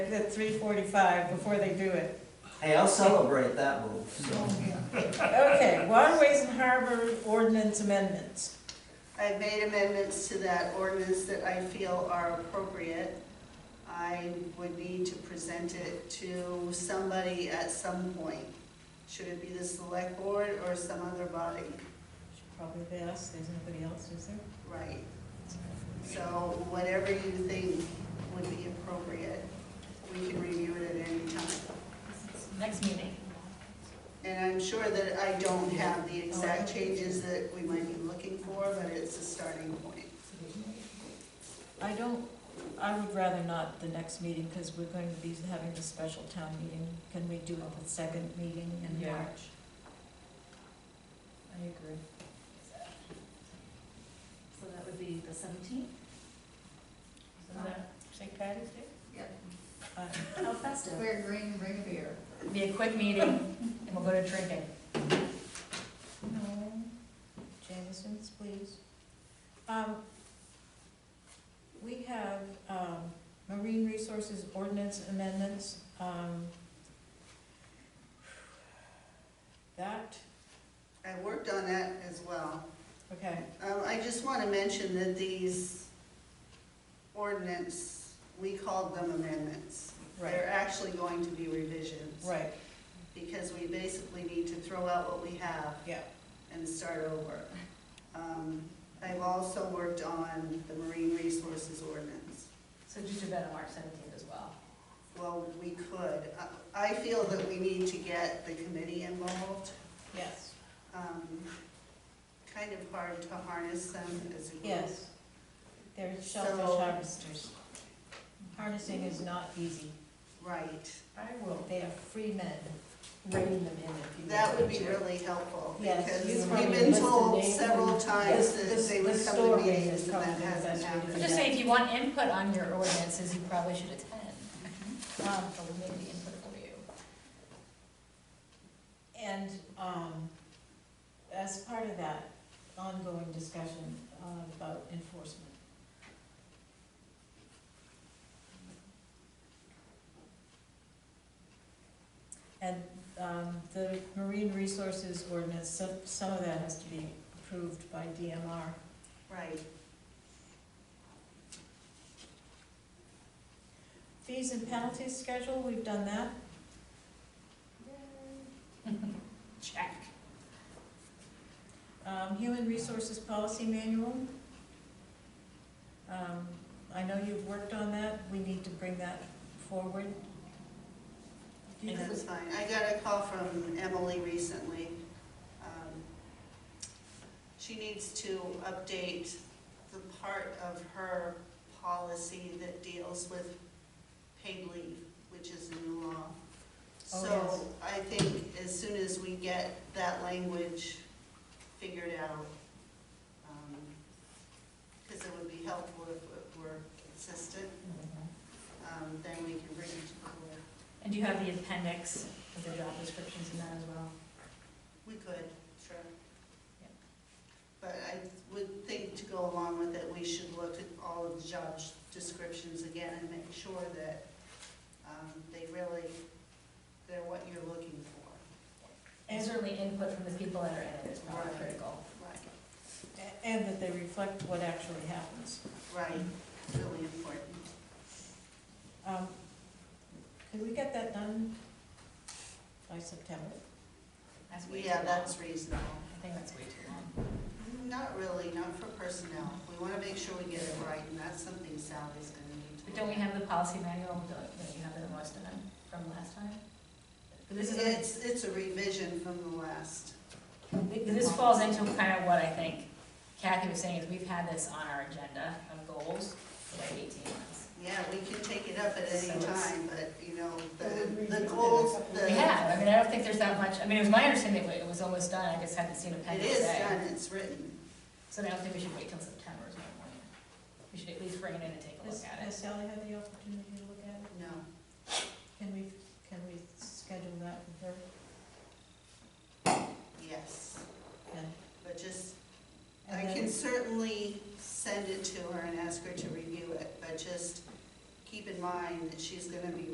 It's at three forty-five before they do it. Hey, I'll celebrate that move, so. Okay, waterways and harbor ordinance amendments. I've made amendments to that ordinance that I feel are appropriate. I would need to present it to somebody at some point. Should it be the select board or some other body? Should Probably be us, there's nobody else, is there? Right. So whatever you think would be appropriate, we can review it at any time. Next meeting. And I'm sure that I don't have the exact changes that we might be looking for, but it's a starting point. I don't, I would rather not the next meeting, because we're going to be having the special town meeting. Can we do it the second meeting in Yeah. March? I agree. So that would be the seventeenth? Is that St. Patty's Day? Uh, How festive. Wear green, bring a beer. Be a quick meeting, and we'll go to drinking. No, Jameson's, please. Um, we have, um, marine resources ordinance amendments, um. That, I worked on that as well. okay, Um, I just want to mention that these ordinance, we called them amendments. right, They're actually going to be revisions. right, Because we basically need to throw out what we have yeah, and start over. Um, I've also worked on the marine resources ordinance. So just do that on March seventeenth as well. Well, we could. I- I feel that we need to get the committee involved. yes, Um, Kind of hard to harness them as a group. yes. They're shellfish So- harvesters. Harnessing is not easy. Right. I will. They are free men, rein them in if you. That would want be to. really helpful, Yes, because you we've probably been listed told names several and times this- that this- they this would come story to meetings is and that probably the best hasn't way to I'm happened. just saying, if you want input on your ordinances, you probably should attend. Um, but we made the input for you. And um, as part of that ongoing discussion uh, about enforcement. And um, the marine resources ordinance, some, some of that has to be approved by DMR. Right, Fees and penalties schedule, we've done that. Check. Um, Human Resources Policy Manual. Um, I know you've worked on that, we need to bring that forward. And- that's fine. I got a call from Emily recently. Um, She needs to update the part of her policy that deals with paid leave, which is a new law. Oh, So I think as soon as we get that language figured out, because it would be helpful if it were consistent, um, then we can bring it to the board. And do you have the appendix with the job descriptions in that as well? We could, sure. Yep. But I would think to go along with it, we should look at all of the job descriptions again and make sure that um, they really, they're what you're looking for. And certainly input from the people that are in it is probably Right. critical. Right. And that they reflect what actually happens. Right, really important. Um, Could we get that done by September? That's way too Yeah, long. that's reasonable. I think that's way too long. Not really, not for personnel. We want to make sure we get it right, and that's something Sally's going to need to. But don't we have the policy manual, don't don't you have it in most of them from last time? But this is. It's, it's a revision from the last. This falls into kind of what I think Kathy was saying, is we've had this on our agenda of goals for like eighteen months. Yeah, we can take it up at So any it's- time, but, you know, the, the goals, the. We have, I mean, I don't think there's that much, I mean, it was my understanding that it was almost done, I just haven't seen a pen It today. is done, it's written. So I don't think we should wait till September is my point. We should at least bring it in and take a Has look at has it. Sally had the opportunity to look at it? No, Can we, can we schedule that with her? yes, And- but just, I and then- can certainly send it to her and ask her to review it, but just keep in mind that she's gonna be